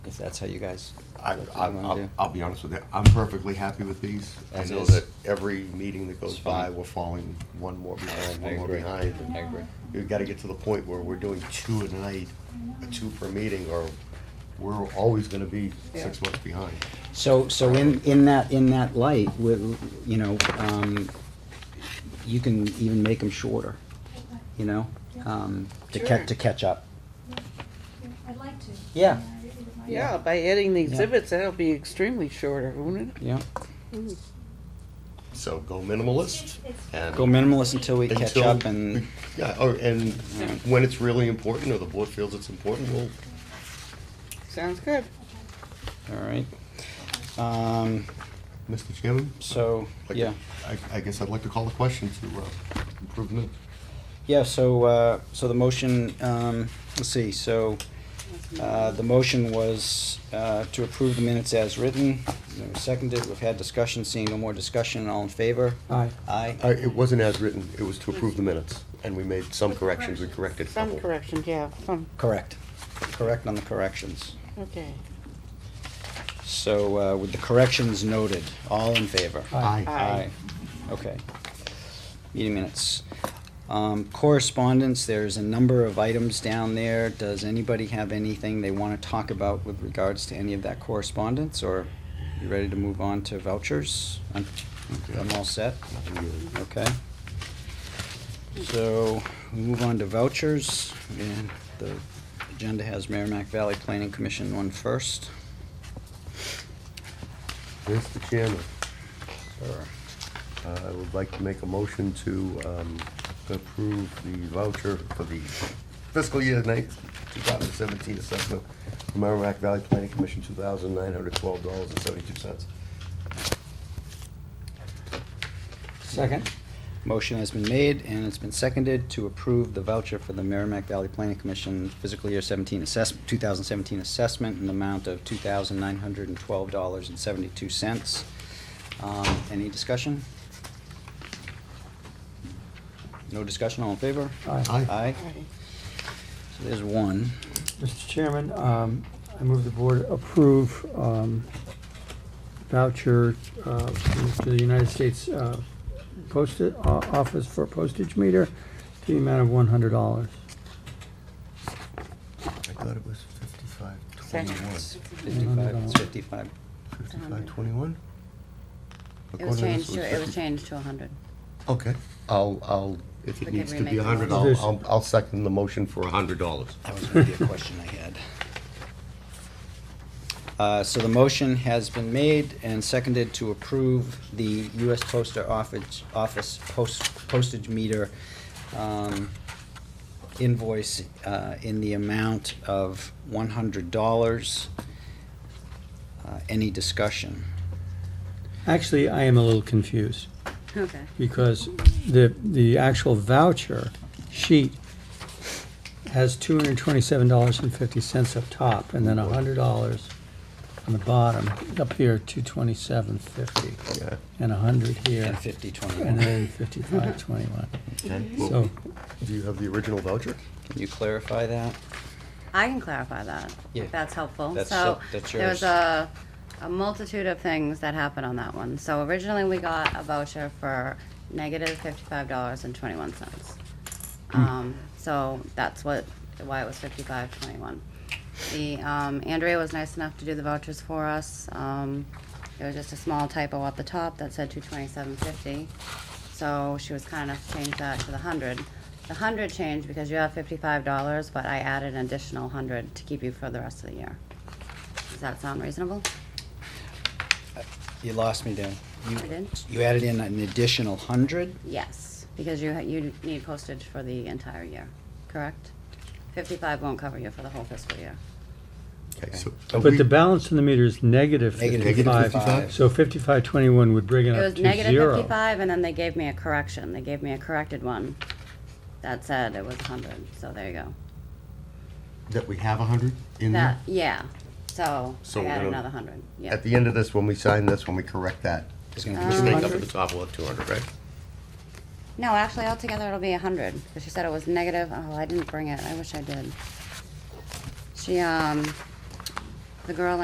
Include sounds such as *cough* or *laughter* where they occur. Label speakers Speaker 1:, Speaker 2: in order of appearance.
Speaker 1: if that's how you guys.
Speaker 2: I,
Speaker 1: that's what
Speaker 2: I,
Speaker 1: you wanna
Speaker 2: I'll,
Speaker 1: do.
Speaker 2: I'll be honest with you, I'm perfectly happy with these. I
Speaker 1: As
Speaker 2: know
Speaker 1: is.
Speaker 2: that every meeting that goes
Speaker 1: It's
Speaker 2: by,
Speaker 1: fine.
Speaker 2: we're falling one more behind,
Speaker 1: I
Speaker 2: one more
Speaker 1: agree.
Speaker 2: behind.
Speaker 1: I agree.
Speaker 2: We've gotta get to the point where we're doing two a night, uh, two per meeting, or we're always gonna be six months behind.
Speaker 1: So, so in, in that, in that light, with, you know, um, you can even make them shorter, you know, um, to
Speaker 3: Sure.
Speaker 1: catch, to catch up.
Speaker 4: I'd like to.
Speaker 1: Yeah.
Speaker 4: I really would like to.
Speaker 3: Yeah, by adding the
Speaker 1: Yeah.
Speaker 3: exhibits, that'll be extremely shorter, won't it?
Speaker 1: Yeah,
Speaker 2: So go minimalist and.
Speaker 1: go minimalist until we catch
Speaker 2: until
Speaker 1: up and,
Speaker 2: *laughs* we- Yeah, or, and when it's really important, or the board feels it's important, we'll
Speaker 3: Sounds good.
Speaker 1: all right. Um,
Speaker 2: Mr. Chairman?
Speaker 1: so,
Speaker 2: like,
Speaker 1: yeah.
Speaker 2: I, I guess I'd like to call the question to, uh, improvement.
Speaker 1: Yeah, so, uh, so the motion, um, let's see, so, uh, the motion was, uh, to approve the minutes as written. It was Seconded, we've had discussion, seeing no more discussion, all in favor? Aye. Aye.
Speaker 2: I, it wasn't as written, it was to approve the minutes, and we made some corrections, we corrected a
Speaker 3: Some
Speaker 2: couple.
Speaker 3: corrections, yeah, some,
Speaker 1: Correct. Correct on the corrections.
Speaker 3: okay.
Speaker 1: So uh, with the corrections noted, all in favor?
Speaker 2: Aye.
Speaker 3: Aye.
Speaker 1: Okay. Meeting minutes. Um, Correspondence, there's a number of items down there. Does anybody have anything they want to talk about with regards to any of that correspondence? Or you ready to move on to vouchers? I'm I'm all set? Okay. So we move on to vouchers, and the agenda has Merrimack Valley Planning Commission one first.
Speaker 2: Mr. Chairman,
Speaker 1: Or-
Speaker 2: uh, I would like to make a motion to, um, approve the voucher for the fiscal year night, two thousand seventeen assessment, from Merrimack Valley Planning Commission, two thousand nine hundred twelve dollars and seventy-two cents.
Speaker 1: Second. Motion has been made and it's been seconded to approve the voucher for the Merrimack Valley Planning Commission fiscal year seventeen assessment, two thousand seventeen assessment in the amount of two thousand nine hundred and twelve dollars and seventy-two cents. Um, any discussion? No discussion, all in favor?
Speaker 2: Aye.
Speaker 1: Aye,
Speaker 3: Alright.
Speaker 1: so there's one.
Speaker 5: Mr. Chairman, um, I move the board approve um, voucher uh, to the United States uh, Post uh, Office for postage meter to the amount of one hundred dollars.
Speaker 2: I thought it was fifty-five twenty-one.
Speaker 3: Seconds.
Speaker 1: Fifty-five. it's fifty-five.
Speaker 2: Fifty-five twenty-one?
Speaker 6: It was changed to, it was changed to a hundred.
Speaker 2: Okay, I'll, I'll, if it
Speaker 6: We can
Speaker 2: needs to be
Speaker 6: remake
Speaker 2: a
Speaker 6: the
Speaker 2: hundred, I'll,
Speaker 5: motion.
Speaker 2: I'll, I'll second the motion for a hundred dollars.
Speaker 1: That was gonna be a question I had. Uh, so the motion has been made and seconded to approve the US Postal Office, Office post- postage meter, um, invoice, uh, in the amount of one hundred dollars. Uh, any discussion?
Speaker 5: Actually, I am a little confused
Speaker 6: Okay.
Speaker 5: because the, the actual voucher sheet has two hundred and twenty-seven dollars and fifty cents up top and then hundred dollars on the bottom, up here, two twenty-seven fifty
Speaker 2: Yeah.
Speaker 5: and a hundred here.
Speaker 1: And fifty twenty-one,
Speaker 5: And
Speaker 1: can
Speaker 5: then fifty-five, twenty-one.
Speaker 2: Do
Speaker 5: So,
Speaker 2: you have the original voucher?
Speaker 1: you clarify that?
Speaker 6: I can clarify that.
Speaker 1: Yeah.
Speaker 6: if That's helpful.
Speaker 1: That's
Speaker 6: So
Speaker 1: so- that's
Speaker 6: there was
Speaker 1: yours.
Speaker 6: a, a multitude of things that happened on that one. So originally we got a voucher for negative fifty-five dollars and twenty-one cents.
Speaker 1: Hmm.
Speaker 6: Um, so that's what, why it was fifty-five twenty-one. The, um, Andrea was nice enough to do the vouchers for us. Um, there was just a small typo up the top that said two twenty-seven fifty. So she was kind enough to change that to the hundred. The hundred changed because you have fifty-five dollars, but I added an additional hundred to keep you for the rest of the year. Does that sound reasonable?
Speaker 1: You lost me there. You-
Speaker 6: I did?
Speaker 1: You added in an additional hundred?
Speaker 6: Yes, because you, ha- you need postage for the entire year, correct? Fifty-five won't cover you for the whole fiscal year.
Speaker 2: Okay, so.
Speaker 5: but the balance in the meter is negative
Speaker 1: Negative
Speaker 5: fifty-five,
Speaker 1: 55.
Speaker 5: so fifty-five twenty-one would bring it
Speaker 6: It
Speaker 5: up
Speaker 6: was
Speaker 5: to
Speaker 6: negative
Speaker 5: zero.
Speaker 6: fifty-five, and then they gave me a correction, they gave me a corrected one that said it was a hundred, so there you go.
Speaker 2: Mm-hmm. That we have a hundred in
Speaker 6: That,
Speaker 2: there?
Speaker 6: yeah, so
Speaker 2: So
Speaker 6: I
Speaker 2: we're
Speaker 6: added
Speaker 2: gonna-
Speaker 6: another hundred, yeah. Uh,
Speaker 2: At the end of this, when we sign this, when we correct that,
Speaker 1: It's gonna be
Speaker 2: just make up at
Speaker 3: 200?
Speaker 2: the top, we'll have two hundred, right?
Speaker 6: No, actually, altogether it'll be a hundred, because she said it was negative, oh, I didn't bring it, I wish I did. She, um, the girl